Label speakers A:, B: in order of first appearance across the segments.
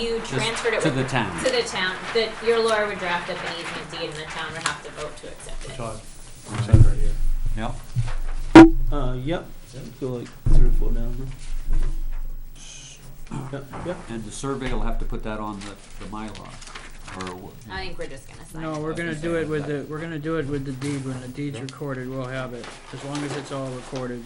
A: you transferred it
B: to
A: with-
B: the town.
A: To the town, that your lawyer would draft up an easement deed and the town would have to vote to accept it.
C: Todd, sign right here.
B: Yep.
D: Uh, yep. Go like three or four down. huh? Yep, yep.
B: And the survey will have to put that on the, the Mylar, or. wh-
A: I think we're just gonna sign.
E: No,
A: it.
E: we're
B: That's
E: gonna
B: the
E: do
B: same
E: it with the,
B: effect.
E: we're gonna do it with the deed, when the deed's recorded, we'll have it, as long as it's all recorded.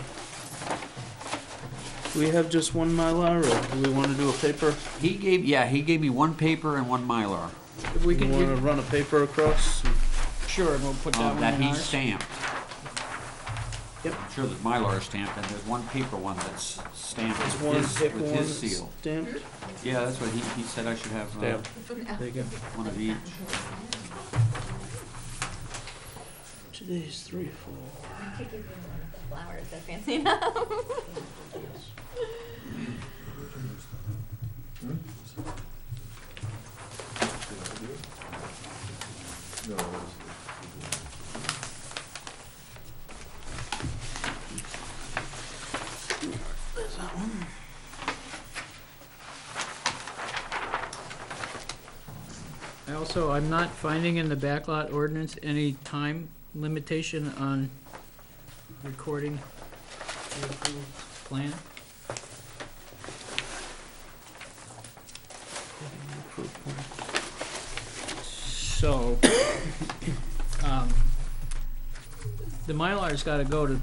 D: Do we have just one Mylar or do we want to do a paper?
B: He gave, yeah, he gave me one paper and one Mylar,
E: If we
D: You
E: can,
D: want to
E: we-
D: run a paper across?
E: sure, we'll put that
B: um,
E: one
B: that
E: in
B: he
E: ours.
B: stamped.
D: Yep.
B: I'm Sure, the Mylar is stamped, and there's one paper one that's stamped
D: Just
B: with
D: one
B: his,
D: paper
B: with
D: one
B: his
D: that's
B: seal.
D: stamped.
B: Yeah, that's what he, he said I should have, uh,
D: Stamped. There you go.
B: one of each.
D: Today's three or four.
A: Flowers, they're fancy enough.
E: I Also, I'm not finding in the backlot ordinance any time limitation on recording the approved plan. So, um, the Mylar's gotta go to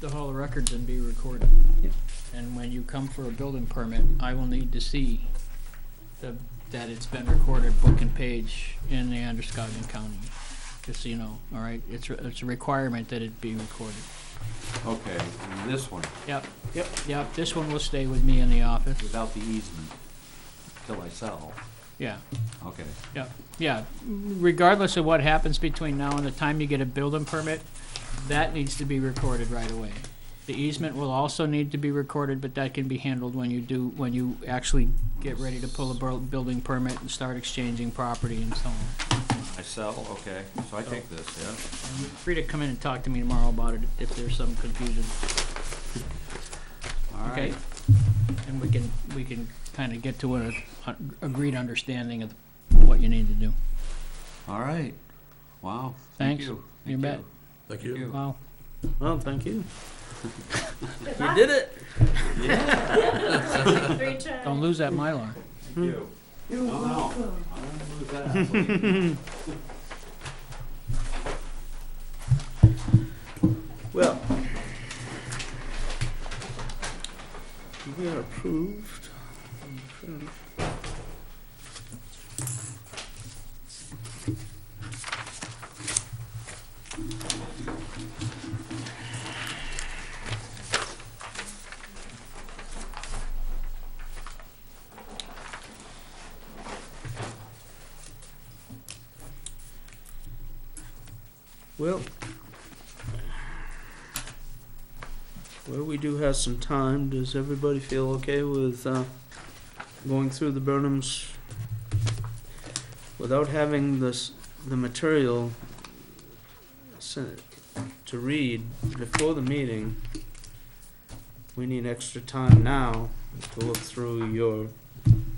E: the Hall of Records and be recorded.
D: Yep.
E: And when you come for a building permit, I will need to see the, that it's been recorded book and page in the Androscoggin County Casino, all right? It's, a- it's a requirement that it be recorded.
B: Okay, and this one,
E: Yep,
D: Yep.
E: yep, this one will stay with me in the office,
B: without the easement, till I sell,
E: yeah.
B: okay.
E: Yeah, yeah. Regardless of what happens between now and the time you get a building permit, that needs to be recorded right away. The easement will also need to be recorded, but that can be handled when you do, when you actually get ready to pull a bur- building permit and start exchanging property and so on.
B: I sell, okay, so I take
E: Oh.
B: this, yeah?
E: Free to come in and talk to me tomorrow about it if there's some confusion,
B: All
E: okay?
B: right,
E: And we can, we can kinda get to an a- agreed understanding of what you need to do.
B: all right, wow, thank
E: Thanks.
B: you.
E: You bet.
C: Thank
B: Thank
C: you.
B: you.
E: Wow.
D: Well, thank you. We did it.
A: Three tries.
E: Don't lose that Mylar.
D: Well, we are approved. Well, Well, we do have some time. Does everybody feel okay with uh, going through the Burnhams without having this the material sen- to read before the meeting? We need extra time now to look through your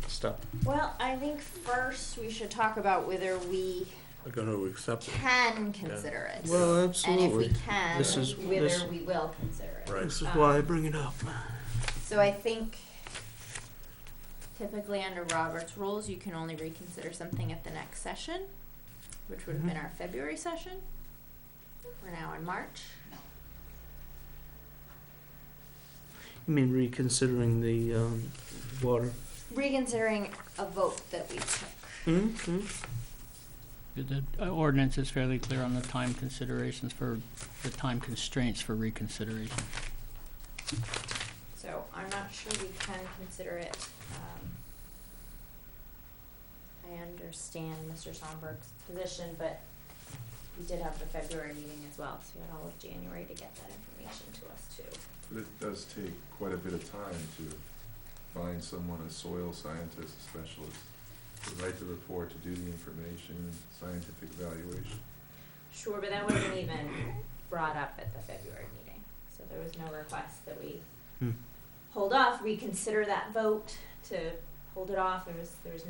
D: stuff.
F: Well, I think first we should talk about whether we
C: I'm gonna accept it,
F: can consider it.
D: Well,
F: And if we
D: absolutely.
F: can,
D: This is- this-
F: whether we will consider it. Um,
C: right.
D: This is why I bring it up.
F: So I think typically under Robert's rules, you can only reconsider something at the next session, which would have been our February session. We're now in March.
D: I mean, reconsidering the um, water.
F: Reconsidering a vote that we took.
D: Mm-hmm.
E: The the ordinance is fairly clear on the time considerations for, the time constraints for reconsideration.
F: So I'm not sure we can consider it. Um, I understand Mr. Sonberg's position, but we did have the February meeting as well, so we had all of January to get that information to us too.
G: But it does take quite a bit of time to find someone, a soil scientist, a specialist, to write the report, to do the information, scientific evaluation.
F: Sure, but that wasn't even brought up at the February meeting, so there was no request that we
D: Hmm.
F: hold off, reconsider that vote to hold it off, there was, there was